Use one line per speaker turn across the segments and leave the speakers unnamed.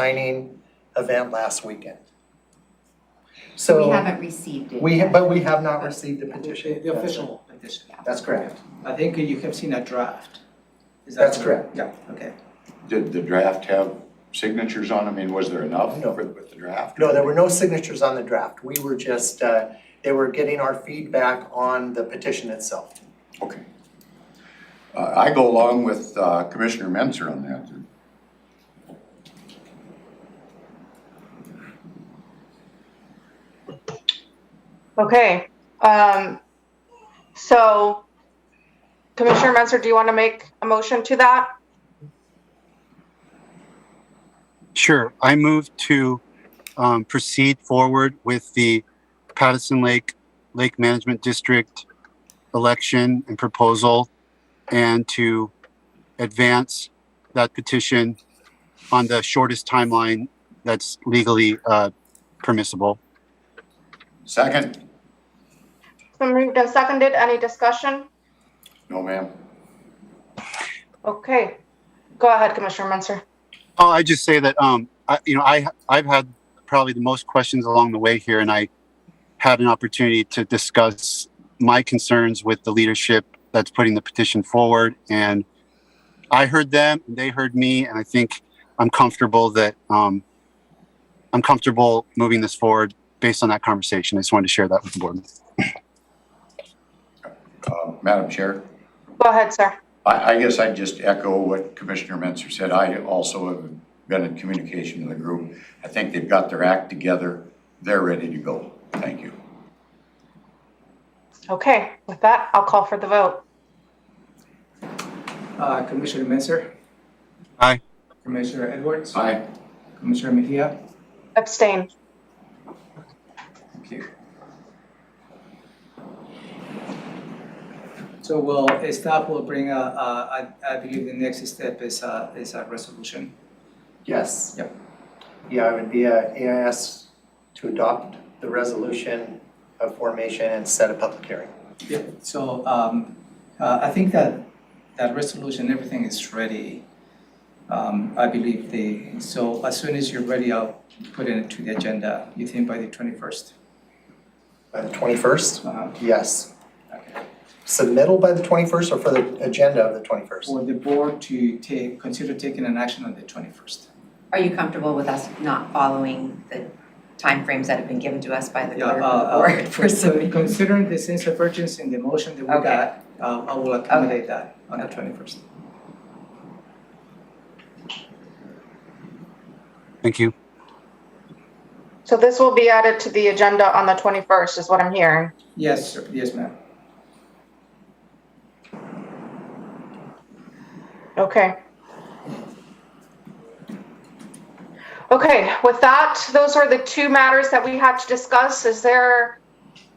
signing event last weekend.
We
So,
haven't received it
we,
yet.
but we have not received the petition.
The official petition.
That's correct.
I think you have seen a draft. Is that
That's correct.
Yeah, okay.
Did the draft have signatures on them, and was there enough
No.
for- with the draft?
No, there were no signatures on the draft. We were just, uh, they were getting our feedback on the petition itself.
Okay. Uh, I go along with uh, Commissioner Menzer on that.
Okay, um, so Commissioner Menzer, do you want to make a motion to that?
Sure. I move to um, proceed forward with the Patterson Lake Lake Management District election and proposal and to advance that petition on the shortest timeline that's legally uh, permissible.
Second?
It's been moved and seconded. Any discussion?
No, ma'am.
Okay, go ahead, Commissioner Menzer.
Oh, I just say that um, I, you know, I I've had probably the most questions along the way here, and I had an opportunity to discuss my concerns with the leadership that's putting the petition forward, and I heard them, and they heard me, and I think I'm comfortable that um, I'm comfortable moving this forward based on that conversation. I just wanted to share that with the board.
Uh, Madam Chair,
Go ahead, sir.
I, I guess I'd just echo what Commissioner Menzer said. I also have been in communication with the group. I think they've got their act together. They're ready to go. Thank you.
Okay, with that, I'll call for the vote.
Uh, Commissioner Menzer?
Aye.
Commissioner Edwards?
Aye.
Commissioner Mejia?
Abstain.
Thank you. So we'll, uh, staff will bring, uh, uh, I, I believe the next step is, uh, is a resolution.
Yes.
Yep.
Yeah, it would be a AIS to adopt the resolution of formation and set a public hearing.
Yeah, so um, uh, I think that that resolution, everything is ready. Um, I believe the, so as soon as you're ready, I'll put it into the agenda, you think by the twenty-first? uh,
By the twenty-first?
For
Yes. Submittal by the twenty-first or for the agenda of the twenty-first?
the board to take, consider taking an action on the twenty-first.
Are you comfortable with us not following the timeframes that have been given to us by the
Yeah,
clerk
uh,
of the
uh,
board for submitting?
Considering the sense of urgency in the motion that we
Okay.
got, uh, I will accommodate that on the twenty-first.
Thank you.
So this will be added to the agenda on the 21st is what I'm hearing.
Yes, sir, yes, ma'am.
Okay. Okay, with that, those were the two matters that we had to discuss. Is there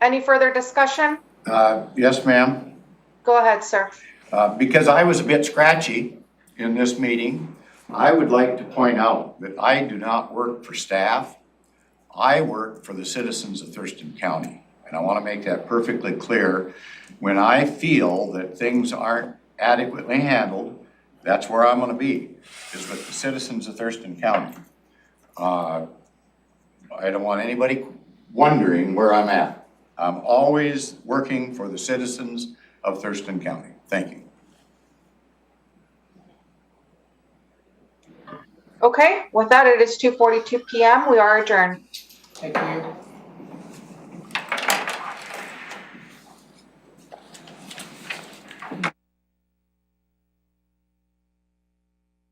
any further discussion?
Uh, yes, ma'am?
Go ahead, sir.
Uh, because I was a bit scratchy in this meeting, I would like to point out that I do not work for staff. I work for the citizens of Thurston County. And I want to make that perfectly clear. When I feel that things aren't adequately handled, that's where I'm going to be, is with the citizens of Thurston County. Uh, I don't want anybody wondering where I'm at. I'm always working for the citizens of Thurston County. Thank you.
Okay, with that, it is 2:42 PM. We are adjourned.
Thank you.